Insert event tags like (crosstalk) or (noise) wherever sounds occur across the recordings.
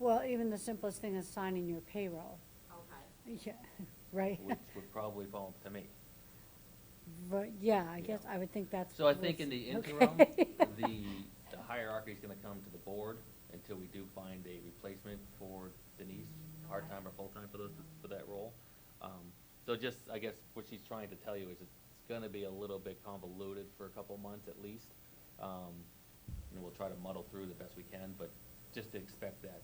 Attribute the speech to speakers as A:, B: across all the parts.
A: the simplest thing is signing your payroll. (laughs)
B: Okay.
A: Yeah, right?
C: which would probably fall to me.
A: (laughs) But, yeah, I
C: Yeah.
A: guess, I would think that's.
C: So I think in
A: was- (laughs)
C: the
A: okay.
C: interim, the, the hierarchy's gonna come to the board until we do find a replacement for Denise, part-time or full-time for those, for that role. Um, So just, I guess, what she's trying to tell you is it's gonna be a little bit convoluted for a couple months at least. Um, And we'll try to muddle through the best we can, but just to expect that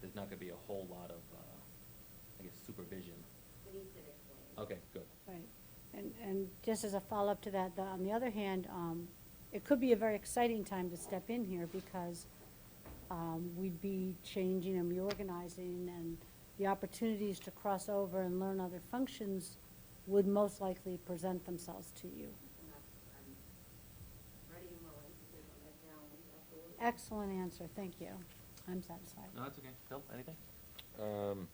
C: there's not gonna be a whole lot of, uh, I guess, supervision.
B: Denise did explain.
C: Okay, good.
A: (laughs) Right, and, and just as a follow-up to that, the, on the other hand, um, it could be a very exciting time to step in here because, um, we'd be changing and reorganizing and the opportunities to cross over and learn other functions would most likely present themselves to you.
B: And that's- I'm ready and willing to take on that challenge, absolutely.
A: Excellent answer, thank you. I'm satisfied.
C: No, that's okay. Phil, anything?
D: Um,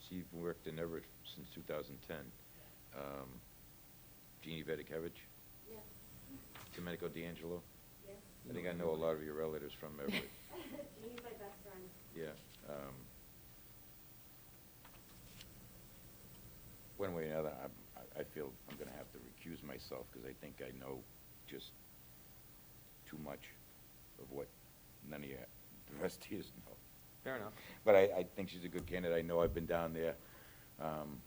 D: she worked in Everett since two thousand ten. Um, Jeannie Vedekevich,
B: Yes,
D: Domenico D'Angelo.
B: yes.
D: I think I know a lot of your relatives from Everett,
B: She's my best friend.
D: yeah. um, One way or another, I'm- I, I feel I'm gonna have to recuse myself, because I think I know just too much of what none of you, the rest of you know.
C: Fair enough.
D: But I, I think she's a good candidate. I know I've been down there um,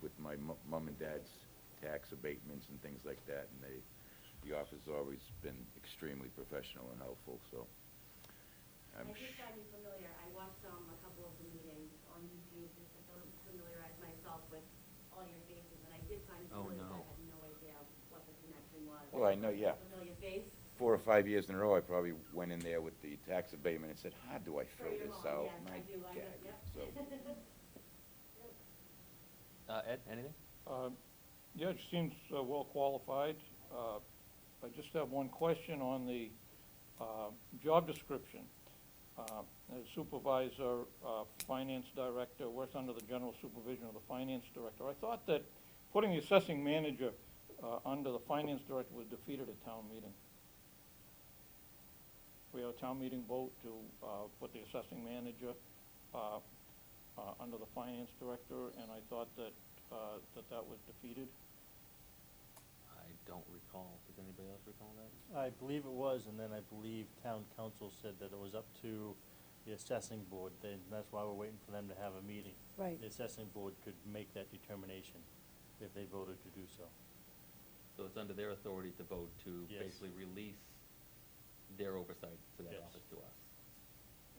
D: with my mu- mum and dad's tax abatements and things like that, and they, the office has always been extremely professional and helpful, so.
B: I
D: I'm
B: just
D: sh-
B: got me familiar, I watched, um, a couple of the meetings on YouTube just to fam- familiarize myself with all your faces, and I did find
C: Oh,
B: familiar, but
C: no.
B: I had no idea what the connection was.
D: Well, I know, yeah.
B: Familiar face.
D: Four or five years in a row, I probably went in there with the tax abatement and said, how do I
B: For
D: fill
B: your
D: this
B: mom,
D: out?
B: yes,
D: My
B: I do, I
D: God."
B: know, (laughs) yep.
D: So,
C: Uh, Ed, anything?
E: Um, Yeah, she seems uh, well qualified. Uh, I just have one question on the uh, job description. Uh, as Supervisor, uh, Finance Director, works under the general supervision of the Finance Director. I thought that putting the assessing manager uh, under the Finance Director was defeated at town meeting. We had a town meeting vote to uh, put the assessing manager uh, uh, under the finance director, and I thought that, uh, that that was defeated.
C: I don't recall. Does anybody else recall that?
F: I believe it was, and then I believe town council said that it was up to the assessing board, then that's why we're waiting for them to have a meeting.
A: Right.
F: The assessing board could make that determination if they voted to do so.
C: So it's under their authority to vote to
F: Yes.
C: basically release their oversight to that
F: Yes.
C: office to us.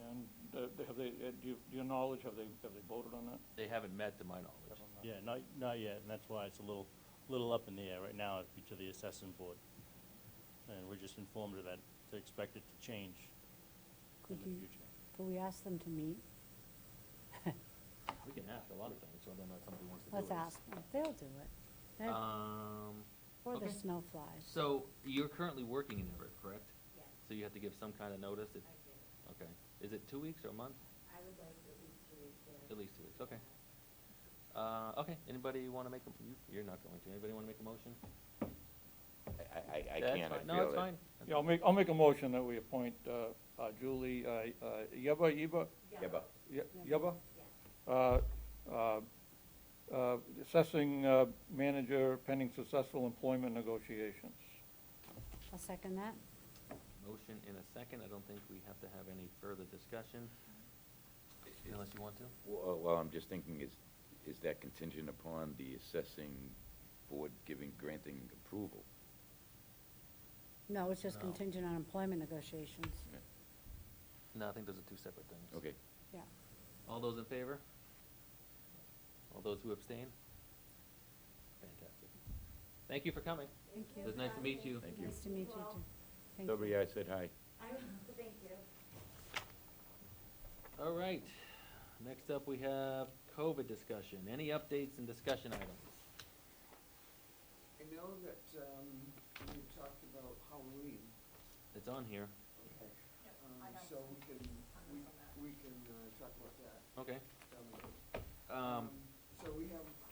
E: And uh, they- have they, uh, do you, do your knowledge, have they, have they voted on that?
C: They haven't met to my knowledge.
F: Yeah, not, not yet, and that's why it's a little, little up in the air right now, it'd be to the assessing board. And we're just informed of that, to expect it to change in
A: Could
F: the
A: you,
F: future.
A: could we ask them to meet?
C: We can ask a lot of things, whether or not somebody wants to do it.
A: Let's ask them, they'll do it. They're-
C: Um,
A: Or the
C: okay.
A: snow flies.
C: so you're currently working in Everett, correct?
B: Yes,
C: So you have to give some kind of notice? It-
B: I did.
C: Okay. Is it two weeks or a month?
B: I would like at least two weeks there.
C: At least two weeks, okay. Uh, okay, anybody wanna make a, you- you're not going to. Anybody wanna make a motion?
D: I, I, I
C: That's
D: can't, I feel
C: fine. No, it's
D: that-
C: fine.
E: Yeah, I'll make, I'll make a motion that we appoint uh, uh, Julie uh, uh, Yeba, Yeba,
D: Yeah, but
E: Ye- Yeba?
B: Yes.
E: Uh, uh, uh, Assessing uh, manager pending successful employment negotiations.
A: I'll second that.
C: Motion in a second. I don't think we have to have any further discussion, unless you want to.
D: Well, well, I'm just thinking, is, is that contingent upon the assessing board giving, granting approval?
A: No, it's just
C: No.
A: contingent on employment negotiations.
C: No, I think those are two separate things.
D: Okay.
A: Yeah.
C: All those in favor? All those who abstain? Fantastic. Thank you for coming.
B: Thank
A: you.
C: It was nice to meet you.
D: Thank you.
A: Nice to meet you
B: Well,
A: too. Thank you.
D: Nobody, I said hi.
B: I, thank you.
C: All right, next up we have COVID discussion. Any updates and discussion items?
G: I know that, um, you talked about Halloween,
C: It's on here.
G: okay, um, so we can, we, we can, uh, talk about that
C: Okay.
G: down the road.
C: Um,
G: So we have um,